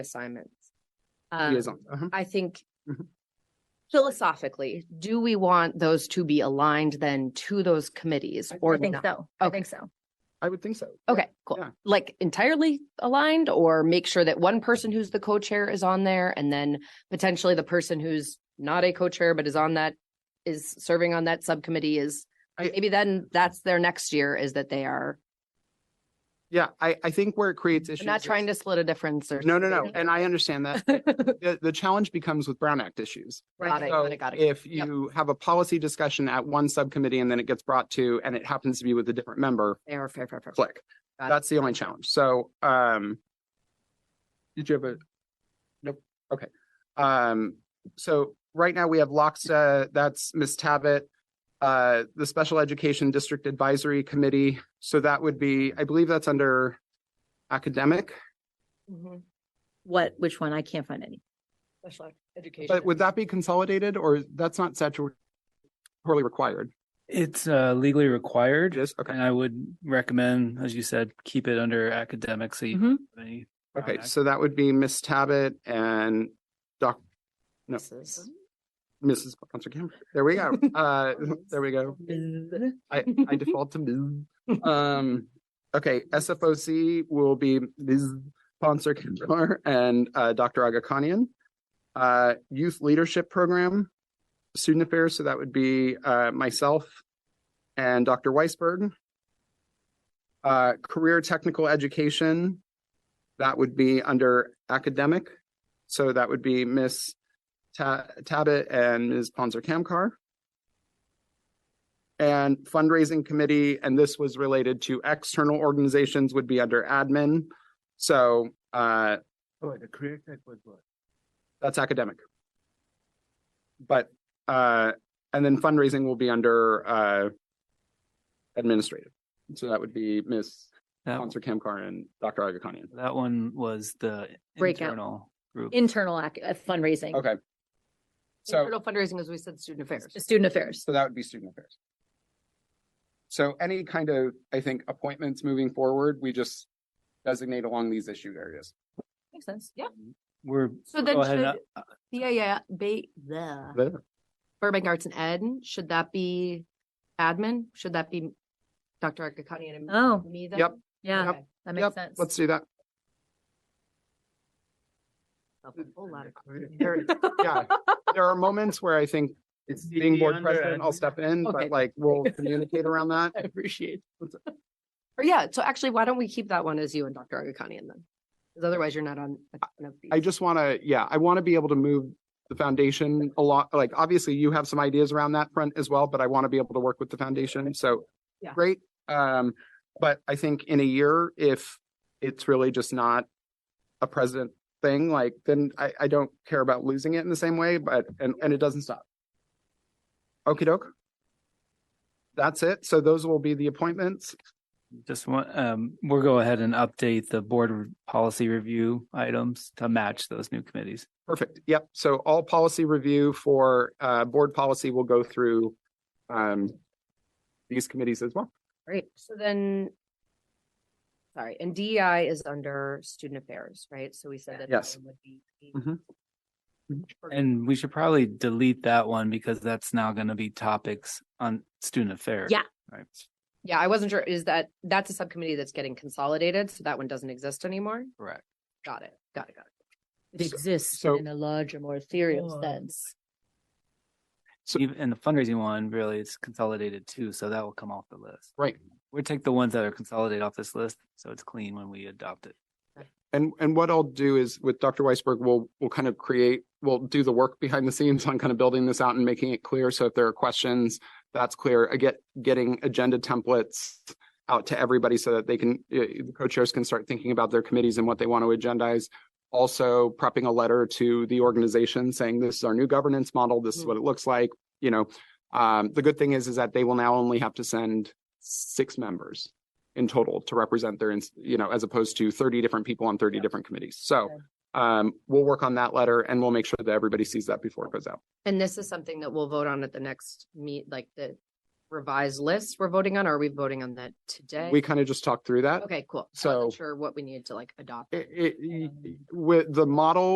assignments. He Um, is on, uh-huh. I think Mhm. philosophically, do we want those to be aligned then to those committees I- I or I think not? so. I Okay. think so. I would think so. Okay, cool. Yeah. Like entirely aligned or make sure that one person who's the co-chair is on there and then potentially the person who's not a co-chair but is on that is serving on that subcommittee is I- maybe then that's their next year is that they are Yeah, I, I think where it creates issues. I'm not is- trying to split a difference or No, no, no. And I understand that. The, the challenge becomes with Brown Act issues. Got it, So got it, got it. If Yep. you have a policy discussion at one subcommittee and then it gets brought to, and it happens to be with a different member, Fair, fair, fair, fair. click. Got it. That's the only challenge. So, um, did you have a, nope, okay. Um, so right now we have Loxa, that's Ms. Tabit, uh, the Special Education District Advisory Committee. So that would be, I believe that's under academic, Mhm. What, which one? I can't find any. Special ed- education. but would that be consolidated or that's not statutorily required? It's uh, legally required, It is, okay. and I would recommend, as you said, keep it under academic. So you Mhm. don't have any Okay, product. so that would be Miss Tabit and Doc, no. This Mrs. Sponsor Cameron. There we go. Uh, there we go. is- I, I default to Ms. Um, okay, SFOC will be Ms. Sponsor Cameron and uh, Dr. Agakanian. Uh, Youth Leadership Program, Student Affairs, so that would be uh, myself and Dr. Weisberg. Uh, Career Technical Education, that would be under academic. So that would be Miss Ta- Tabit and Ms. Ponzer Kamkar. And fundraising committee, and this was related to external organizations, would be under admin. So uh, Oh, the career tech was what? that's academic. But uh, and then fundraising will be under uh, administrative. So that would be Ms. That, Ponzer Kamkar and Dr. Agakonian. that one was the Breakout. internal group. Internal ac- uh, fundraising. Okay. So Internal fundraising, as we said, student affairs. Student affairs. So that would be student affairs. So any kind of, I think, appointments moving forward, we just designate along these issue areas. Makes sense. Yeah. We're So go then ahead. uh, and- should, yeah, yeah, ba- the There. Burbank Arts and Ed, should that be admin? Should that be Dr. Akakani and Oh, me then? Yep. yeah. Yep. That Yep, makes sense. Let's do that. A whole lot of- There- Yeah, there are moments where I think it's being board president, I'll step in, Okay. but like we'll communicate around that. appreciate. Or yeah, so actually, why don't we keep that one as you and Dr. Agakanian then? Because otherwise you're not on. a ton of I these. just want to, yeah, I want to be able to move the foundation a lot. Like, obviously, you have some ideas around that front as well, but I want to be able to work with the foundation. So, Yeah. great. Um, but I think in a year, if it's really just not a president thing, like, then I, I don't care about losing it in the same way, but, and, and it doesn't stop. Okey doke. That's it. So those will be the appointments. Just want um, we'll go ahead and update the board re- policy review items to match those new committees. Perfect. Yep. So all policy review for uh board policy will go through um these committees as well. Right, so then. Sorry, and DEI is under student affairs, right? So we said that. that Yes. one would be- Mhm. And we should probably delete that one because that's now going to be topics on student affairs. Yeah. Right. Yeah, I wasn't sure, is that, that's a subcommittee that's getting consolidated, so that one doesn't exist anymore? Correct. Got it, got it, got it. It exists so- in a larger, more ethereal Oh. sense. So- Even- and the fundraising one really is consolidated too, so that will come off the list. Right. We take the ones that are consolidated off this list, so it's clean when we adopt it. And and what I'll do is with Dr. Weisberg, we'll we'll kind of create, we'll do the work behind the scenes on kind of building this out and making it clear. So if there are questions, that's clear. I get getting agenda templates out to everybody so that they can uh, the co-chairs can start thinking about their committees and what they want to agendize. Also prepping a letter to the organization saying this is our new governance model, this is what it looks like, you know. Um, the good thing is is that they will now only have to send six members in total to represent their, ins- you know, as opposed to thirty different people on thirty different committees. So Okay. um, we'll work on that letter and we'll make sure that everybody sees that before it goes out. And this is something that we'll vote on at the next meet, like the revised lists we're voting on? Or are we voting on that today? We kind of just talked through that. Okay, cool. I So- wasn't Sure, what we need to like adopt. It, it, with the model